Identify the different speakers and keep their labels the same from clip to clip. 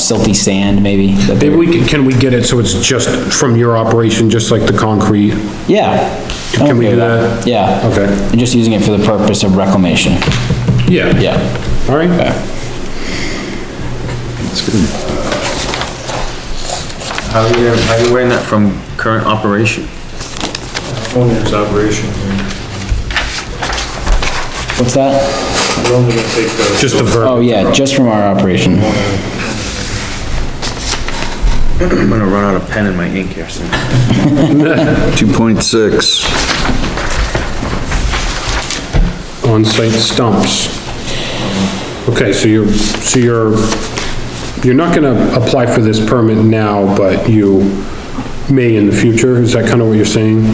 Speaker 1: silty sand, maybe. that
Speaker 2: Maybe
Speaker 1: they're-
Speaker 2: we can, can we get it so it's just from your operation, just like the concrete?
Speaker 1: Yeah. I'm
Speaker 2: Can we
Speaker 1: okay
Speaker 2: do
Speaker 1: with
Speaker 2: that?
Speaker 1: Yeah.
Speaker 2: Okay.
Speaker 1: And just using it for the purpose of reclamation,
Speaker 2: Yeah.
Speaker 1: yeah.
Speaker 2: All right.
Speaker 3: How are you, how are you wearing that from current operation?
Speaker 4: Owner's operation, we're
Speaker 1: What's that?
Speaker 4: only gonna take the.
Speaker 2: Just the verb.
Speaker 1: Oh, yeah, just from our operation.
Speaker 3: I'm gonna run out of pen in my ink here soon.
Speaker 5: 2.6,
Speaker 2: on-site stumps. Okay, so you're, so you're, you're not gonna apply for this permit now, but you may in the future, is that kinda what you're saying?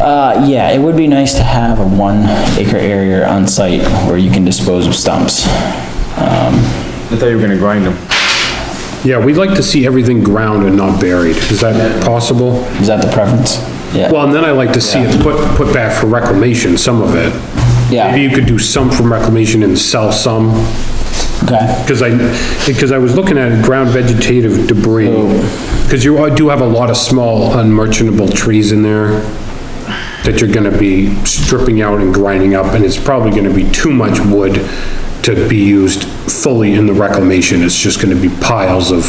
Speaker 1: Uh, yeah, it would be nice to have a one acre area on site where you can dispose of stumps.
Speaker 3: I thought you were gonna grind them.
Speaker 2: Yeah, we'd like to see everything ground and not buried, is that possible?
Speaker 1: Is that the preference? Yeah,
Speaker 2: Well, and then I like to see it put, put back for reclamation, some of it. Maybe
Speaker 1: yeah,
Speaker 2: you could do some from reclamation and sell some,
Speaker 1: okay.
Speaker 2: because I, because I was looking at ground vegetative debris.
Speaker 1: Oh.
Speaker 2: Because you do have a lot of small unmerchantable trees in there that you're gonna be stripping out and grinding up, and it's probably gonna be too much wood to be used fully in the reclamation, it's just gonna be piles of,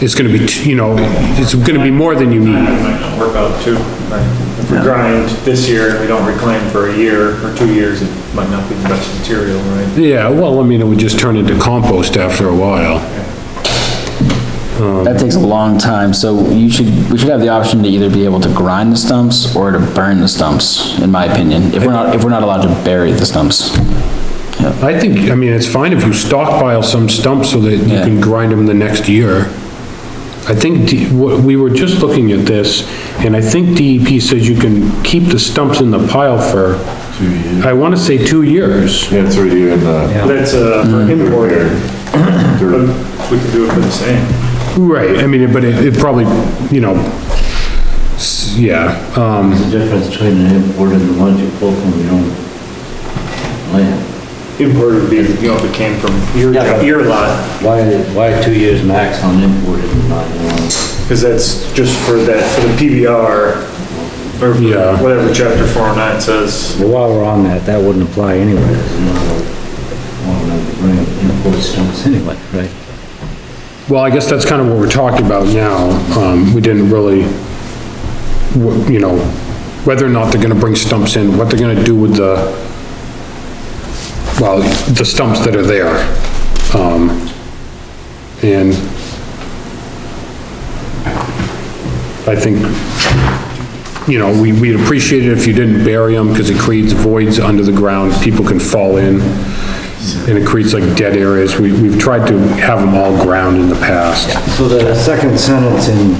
Speaker 2: it's gonna be, t- you know, it's gonna be more than you need.
Speaker 4: It might not work out too, right? If we grind this year and we don't reclaim for a year or two years, it might not be the best material, right?
Speaker 2: Yeah, well, I mean, it would just turn into compost after a while.
Speaker 1: That takes a long time, so you should, we should have the option to either be able to grind the stumps or to burn the stumps, in my opinion, if we're not, if we're not allowed to bury the stumps.
Speaker 2: I think, I mean, it's fine if you stockpile some stumps so that you
Speaker 1: Yeah.
Speaker 2: can grind them the next year. I think, D- wh- we were just looking at this, and I think DEP says you can keep the stumps in the pile for, I wanna say two years.
Speaker 5: yeah, it's right here in the,
Speaker 4: That's, uh, for imported, but we could do it for the same.
Speaker 2: Right, I mean, but it, it probably, you know, s- yeah, um,
Speaker 6: The difference between an import and the ones you pull from your own land.
Speaker 4: Imported would be, you know, if it came from your,
Speaker 6: Yeah.
Speaker 4: your lot,
Speaker 6: Why, why two years max on imported and not your own?
Speaker 4: because that's just for that, for the PBR, or
Speaker 2: Yeah.
Speaker 4: whatever chapter four oh nine says.
Speaker 6: Well, While we're on that, that wouldn't apply anyway, there's no, no, bring import stumps anyway, right?
Speaker 2: Well, I guess that's kind of what we're talking about now. Um, we didn't really, wh- you know, whether or not they're gonna bring stumps in, what they're gonna do with the, well, the stumps that are there. Um, and I think, you know, we, we'd appreciate it if you didn't bury them, because it creates voids under the ground, people can fall in and it creates like dead areas. We, we've tried to have them all ground in the past.
Speaker 6: So the second sentence in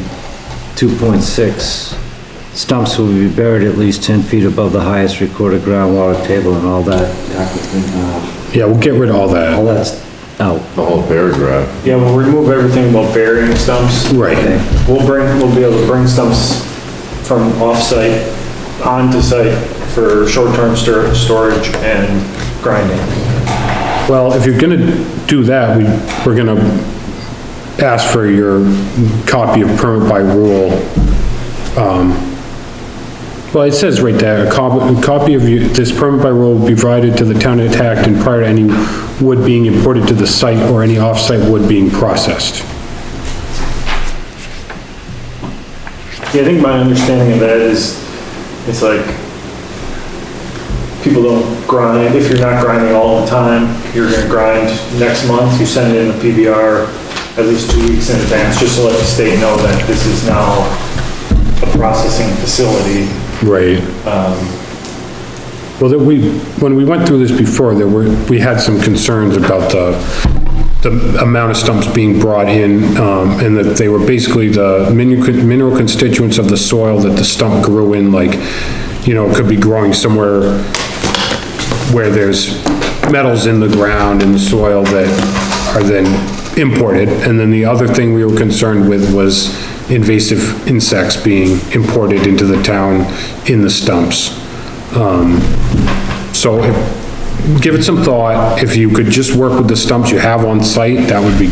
Speaker 6: 2.6, stumps will be buried at least 10 feet above the highest recorded groundwater table and all that, uh,
Speaker 2: Yeah, we'll get rid of all
Speaker 6: all
Speaker 2: that.
Speaker 6: that's out.
Speaker 5: the whole paragraph.
Speaker 4: Yeah, we'll remove everything about burying stumps.
Speaker 2: Right.
Speaker 4: We'll bring, we'll be able to bring stumps from off-site onto site for short-term stor- storage and grinding.
Speaker 2: Well, if you're gonna do that, we, we're gonna ask for your copy of permit by rule. Um, Well, it says right there, a copy, a copy of you- this permit by rule will be provided to the town of Acton prior to any wood being imported to the site or any off-site wood being processed.
Speaker 4: Yeah, I think my understanding of that is, it's like, people don't grind, if you're not grinding all the time, you're gonna grind next month, you send in a PBR at least two weeks in advance, just to let the state know that this is now a processing facility.
Speaker 2: Right. Well, that we, when we went through this before, there were, we had some concerns about the, the amount of stumps being brought in, um, and that they were basically the mineral mineral constituents of the soil that the stump grew in, like, you know, it could be growing somewhere where there's metals in the ground and the soil that are then imported. And then the other thing we were concerned with was invasive insects being imported into the town in the stumps. Um, So if- give it some thought. If you could just work with the stumps you have on site, that would be